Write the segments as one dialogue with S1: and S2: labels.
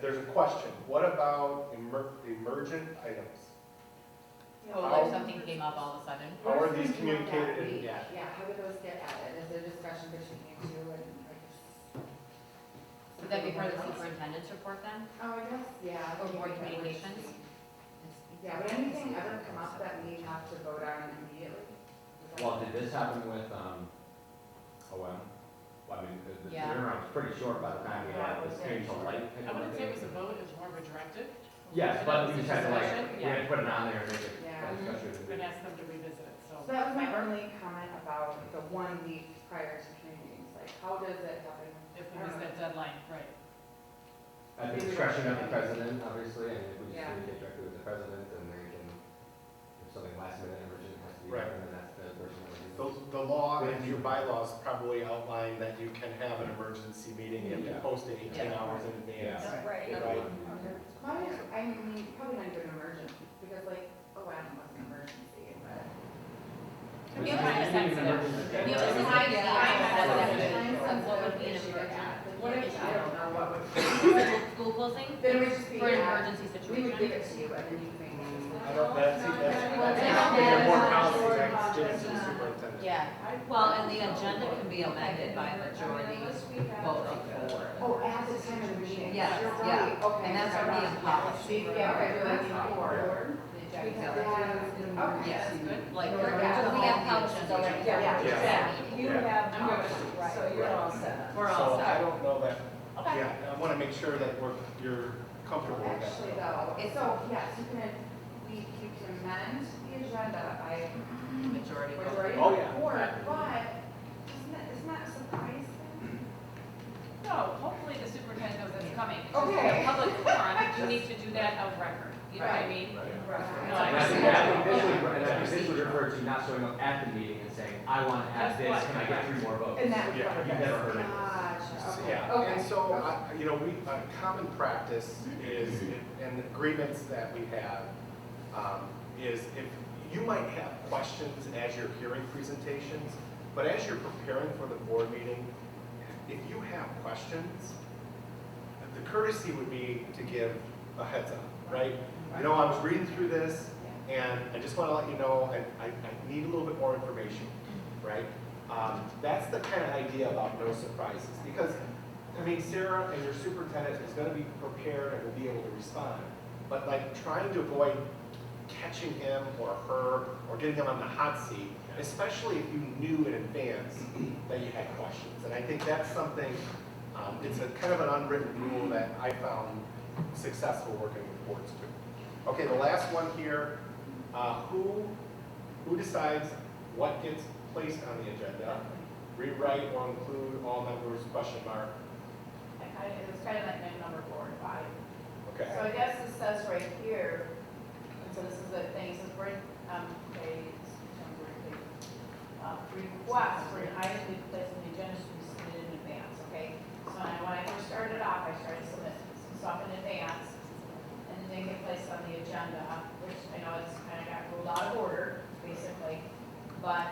S1: There's a question, what about emer- emergent items?
S2: Oh.
S3: Well, if something came up all of a sudden,
S1: How are these
S2: Where's the email
S1: communicated
S2: that
S1: in-
S2: we-
S1: yeah.
S2: Yeah, how would those get added? Is there discussion between you two and? like,
S3: would that be part of the
S2: something else?
S3: superintendent's report then?
S2: Oh, I guess, yeah. I
S3: Or
S2: think
S3: board
S2: that would
S3: communications?
S2: be- Yeah, would anything ever come up that we have to vote on immediately? Is that-
S4: Well, did this happen with, um, OM? Well, I mean, the, the
S3: Yeah.
S4: turnaround was pretty short by the time we
S2: Yeah,
S4: had
S2: it was
S4: this change to light.
S5: I wouldn't say it was a vote, it was more of a directive,
S4: Yes, but we just had to like,
S5: Discussion,
S4: we
S5: yeah.
S4: had to put it on there and make it
S2: Yeah.
S4: a
S5: and
S4: discussion.
S5: asked them to revisit it, so.
S2: So that was my only comment about the one week prior to community meetings, like, how does it happen?
S5: If we miss that deadline, right.
S4: At the discretion of the president, obviously, and if we just
S2: Yeah.
S4: communicate directly with the president, then they can, if something last minute emergent has to be
S1: Right.
S4: done, then that's the person that would do
S1: The, the law and your bylaws probably outline that you can have an emergency meeting, you have to
S4: Yeah.
S1: post it eighteen
S3: Yeah.
S1: hours in advance.
S4: Yeah.
S1: Right.
S4: it.
S2: Probably, I mean, probably not even emergent, because like, oh, I don't know what's an emergency, but.
S4: But
S3: Yeah,
S4: it's
S3: but
S4: not
S3: it's not
S4: even
S3: sensitive.
S4: emergency.
S3: Yeah, but
S4: It's
S3: it's
S4: not-
S3: not- What would be an
S2: What if, I don't know, what would.
S3: School closing
S2: Then we just be,
S3: for an
S2: uh,
S3: emergency
S2: we would give
S3: situation?
S2: it to you and then you make it.
S1: I don't, that's, that's, that's, we have more policies, that's just the superintendent.
S3: Yeah, well, and the agenda can be amended by majority vote of the board.
S2: Oh, at the time of the meeting.
S3: Yes,
S2: You're
S3: yeah.
S2: right, okay.
S3: And that's already in policy.
S2: Yeah, okay, that's
S4: Yeah.
S2: four.
S3: Exactly.
S2: Okay.
S3: Yes,
S5: good.
S3: like, we're- so we have how agenda.
S2: Yeah.
S1: Yeah.
S6: You have, policy, so you're all set up.
S3: We're all
S1: So I
S3: set.
S1: don't know that,
S3: Okay.
S1: yeah, I wanna make sure that we're, you're comfortable with that.
S2: Actually though, it's, so, yes, you can, we, you can amend the agenda by
S3: Majority
S2: Which
S3: vote.
S2: are
S1: Oh, yeah.
S2: but isn't it, isn't that surprising?
S5: No, hopefully the superintendent knows it's coming. It's just
S2: Okay.
S5: a public forum, you need to do that of record, you know what I mean? No,
S4: And I think,
S5: understand.
S4: I think this would, and I think this would refer to not showing up at the meeting and saying, I want to add
S5: That's
S4: this,
S5: what-
S4: can I get three more votes?
S2: And that would.
S1: Yeah,
S2: cover
S4: you've
S2: this.
S4: never heard of this.
S2: Gotcha, okay.
S1: Yeah,
S2: Okay.
S1: and so, I- you know, we, a common practice is, and the agreements that we have, um, is if, you might have questions as you're hearing presentations, but as you're preparing for the board meeting, if you have questions, the courtesy would be to give a heads up, right? You know, I was reading through this, and I just want to let you know, I, I, I need a little bit more information, right? Um, that's the kind of idea about no surprises, because, I mean, Sarah and your superintendent is gonna be prepared and will be able to respond, but like, trying to avoid catching him or her, or getting them on the hot seat, especially if you knew in advance that you had questions, and I think that's something, um, it's a kind of an unwritten rule that I found successful working with boards too. Okay, the last one here, uh, who, who decides what gets placed on the agenda? Rewrite or include all members, question mark,
S7: Like, I- It was kind of like my number four and five.
S1: okay.
S7: So I guess it says right here, and so this is the thing, it says bring, um, they, uh, requests for an item to be placed on the agenda should be submitted in advance, okay? So when I, when I first started off, I started submitting some stuff in advance, and it didn't get placed on the agenda, which I know it's kind of got ruled out of order, basically. But,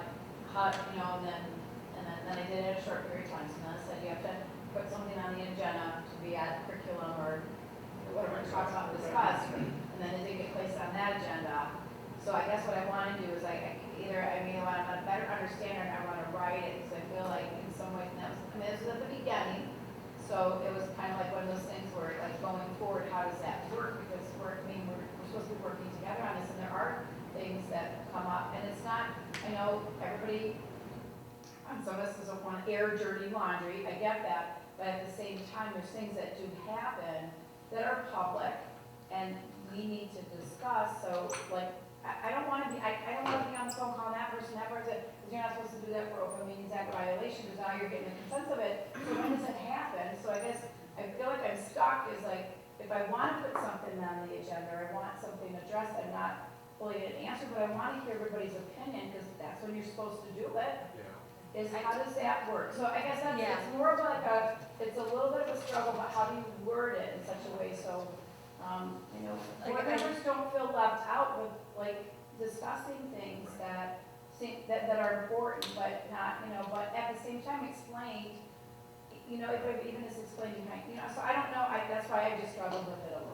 S7: how, you know, and then, and then, then I did it a short period of time, so then I said, you have to put something on the agenda to be at curriculum or whatever it talks about, discuss, and then it didn't get placed on that agenda. So I guess what I want to do is like, I can either, I mean, I want a better understanding, I want to write it, because I feel like in some ways, and that was, I mean, this was at the beginning, so it was kind of like one of those things where like going forward, how does that work? Because we're, I mean, we're, we're supposed to be working together on this, and there are things that come up, and it's not, I know everybody, on some of us doesn't want to air dirty laundry, I get that, but at the same time, there's things that do happen that are public, and we need to discuss, so like, I, I don't want to be, I, I don't want to be on the phone calling that person, that person, because you're not supposed to do that for open meetings act violation, because now you're getting the sense of it, so when does it happen? So I guess, I feel like I'm stuck, is like, if I want to put something on the agenda, or I want something addressed, I'm not fully an answer, but I want to hear everybody's opinion, because that's when you're supposed to do it
S1: Yeah.
S7: is how does that work? So I guess that's,
S3: Yeah.
S7: it's more of like a, it's a little bit of a struggle, but how do you word it in such a way so, um, you know,
S3: Like,
S7: board
S3: I-
S7: members don't feel left out with, like, discussing things that seem, that, that are important, but not, you know, but at the same time explained, you know, if I've even as explained behind, you know, so I don't know, I, that's why I just struggled with it a little